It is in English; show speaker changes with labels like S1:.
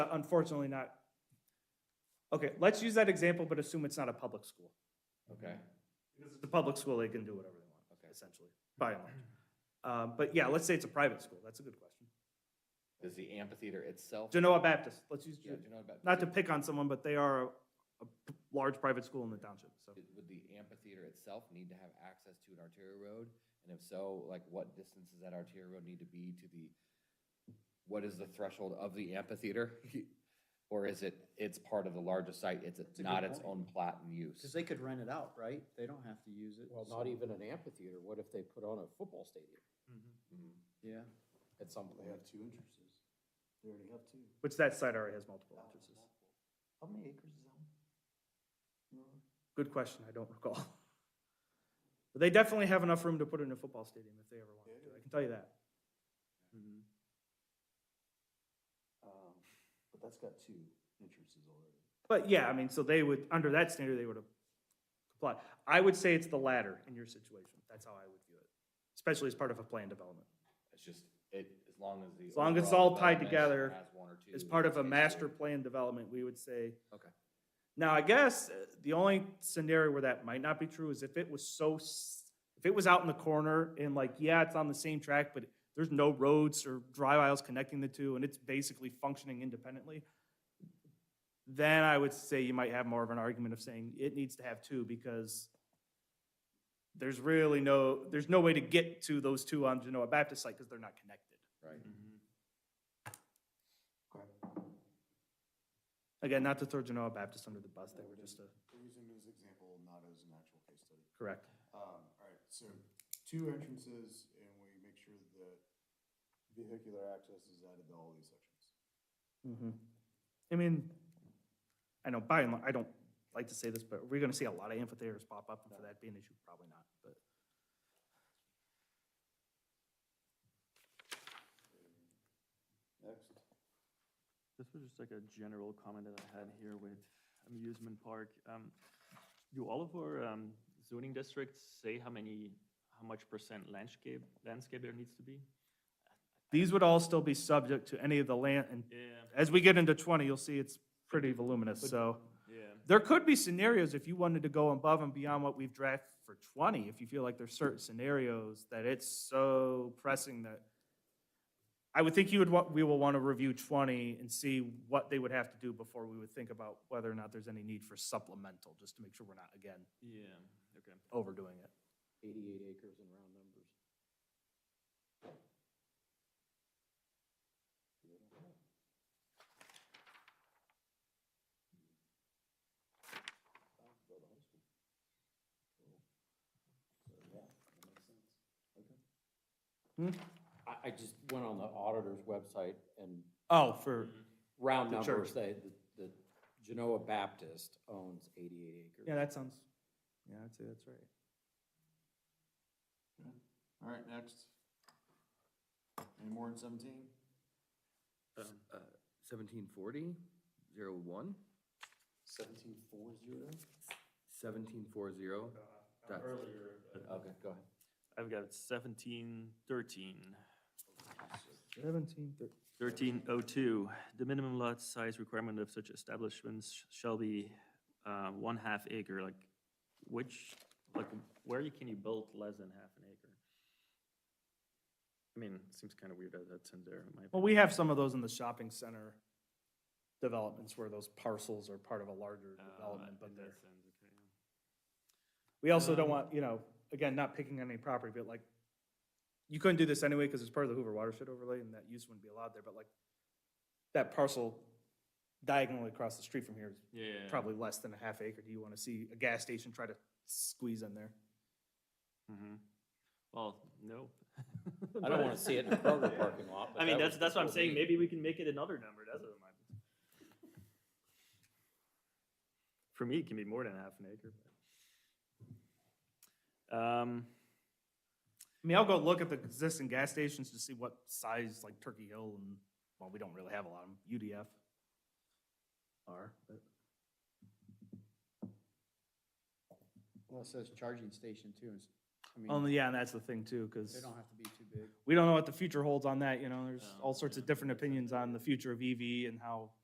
S1: Uh, Unfortunately not. Okay, let's use that example, but assume it's not a public school.
S2: Okay,
S1: Because it's a public school, they can do whatever they
S2: Okay.
S1: want, essentially, by and large. Um, But yeah, let's say it's a private school. That's a good question.
S2: does the amphitheater itself?
S1: Genoa Baptist, let's use,
S2: Yeah, do you know about-
S1: not to pick on someone, but they are a a p- large private school in the township, so.
S2: Would the amphitheater itself need to have access to an arterial road? And if so, like what distance does that arterial road need to be to the, what is the threshold of the amphitheater? Or is it, it's part of the larger site, it's
S3: a good
S2: not its
S3: point.
S2: own plot and use?
S3: Because they could rent it out, right? They don't have to use it.
S4: Well,
S3: so-
S4: not even an amphitheater, what if they put on a football stadium
S2: Mhm.
S3: Yeah.
S4: at some point?
S3: two entrances. They already have two.
S1: Which that site already has multiple entrances.
S3: How many acres is that? Mm-hmm.
S1: Good question, I don't recall. But they definitely have enough room to put in a football stadium if they ever wanted to, I can tell you that.
S3: Mm-hmm. Um, but that's got two entrances already.
S1: But yeah, I mean, so they would, under that standard, they would have complied. I would say it's the latter in your situation. That's how I would view it, especially as part of a planned development.
S2: It's just, it, as long as the.
S1: As long as it's
S2: overall
S1: all tied
S2: development
S1: together,
S2: has one or two
S1: As part of a
S2: spaces.
S1: master plan development, we would say.
S2: Okay.
S1: Now, I guess uh, the only scenario where that might not be true is if it was so, s- if it was out in the corner and like, yeah, it's on the same track, but there's no roads or drive aisles connecting the two and it's basically functioning independently, then I would say you might have more of an argument of saying it needs to have two because there's really no, there's no way to get to those two on Genoa Baptist site because they're not connected.
S2: Right.
S3: Mm-hmm.
S1: Again, not to throw Genoa Baptist under the bus, they were just a,
S5: We're using it as an example, not as an actual case study.
S1: correct.
S5: Um, all right, so two entrances and we make sure that vehicular access is added to all these sections.
S1: Mhm. I mean, I know by and large, I don't like to say this, but we're gonna see a lot of amphitheaters pop up, and for that being an issue, probably not, but.
S5: Next.
S6: This was just like a general comment that I had here with amusement park. Um, do all of our um, zoning districts say how many, how much percent landscape, landscape there needs to be?
S1: These would all still be subject to any of the land, and
S6: Yeah,
S1: as we get into twenty, you'll see it's pretty voluminous, so.
S6: yeah.
S1: There could be scenarios if you wanted to go above and beyond what we've drafted for twenty, if you feel like there's certain scenarios that it's so pressing that. I would think you would want, we will want to review twenty and see what they would have to do before we would think about whether or not there's any need for supplemental, just to make sure we're not, again,
S6: Yeah, okay.
S1: overdoing it.
S4: Eighty-eight acres in round numbers. I, I just went on the auditor's website and
S1: Oh, for,
S4: round
S1: The
S4: numbers,
S1: church.
S4: they, the, the Genoa Baptist owns eighty-eight acres.
S6: Mm-hmm.
S1: yeah, that sounds, yeah, I'd say that's right.
S5: All right, next. Any more in seventeen?
S2: Seventeen forty, zero one,
S3: Seventeen four zero?
S2: seventeen four zero.
S6: Uh,
S2: Earlier. Okay, go ahead.
S6: I've got seventeen thirteen.
S1: Seventeen, thirteen.
S6: Thirteen oh two, the minimum lot size requirement of such establishments sh- shall be uh, one half acre, like which, like where you- can you build less than half an acre? I mean, it seems kind of weird that that's in there, in my
S1: Well, we have some of those in the shopping center developments where those parcels are part of a larger
S6: Uh,
S1: development, but
S6: in that
S1: they're.
S6: sense, okay, yeah.
S1: We also don't
S6: Um,
S1: want, you know, again, not picking on any property, but like, you couldn't do this anyway because it's part of the Hoover watershed overlay and that use wouldn't be allowed there, but like, that parcel diagonally across the street from here is
S6: Yeah. yeah, yeah.
S1: probably less than a half acre. Do you want to see a gas station try to squeeze in there?
S6: Mhm. Well, no.
S4: I don't wanna see it in a Kroger parking lot. but
S6: I mean,
S4: that
S6: that's,
S4: was
S6: that's what I'm
S4: before
S6: saying,
S4: me.
S6: maybe we can make it another number, that's what I'm. For me, it can be more than half an acre, but. Um,
S1: I mean, I'll go look at the existing gas stations to see what size, like Turkey Hill and, well, we don't really have a lot of them, UDF are, but.
S3: Well, it says charging station too. it's- I mean,
S1: Only, yeah, and that's the thing too, because.
S3: they don't have to be too big.
S1: we don't know what the future holds on that, you know, there's
S6: No,
S1: all sorts
S6: yeah,
S1: of different
S6: that's up
S1: opinions
S6: there.
S1: on the future of EV and how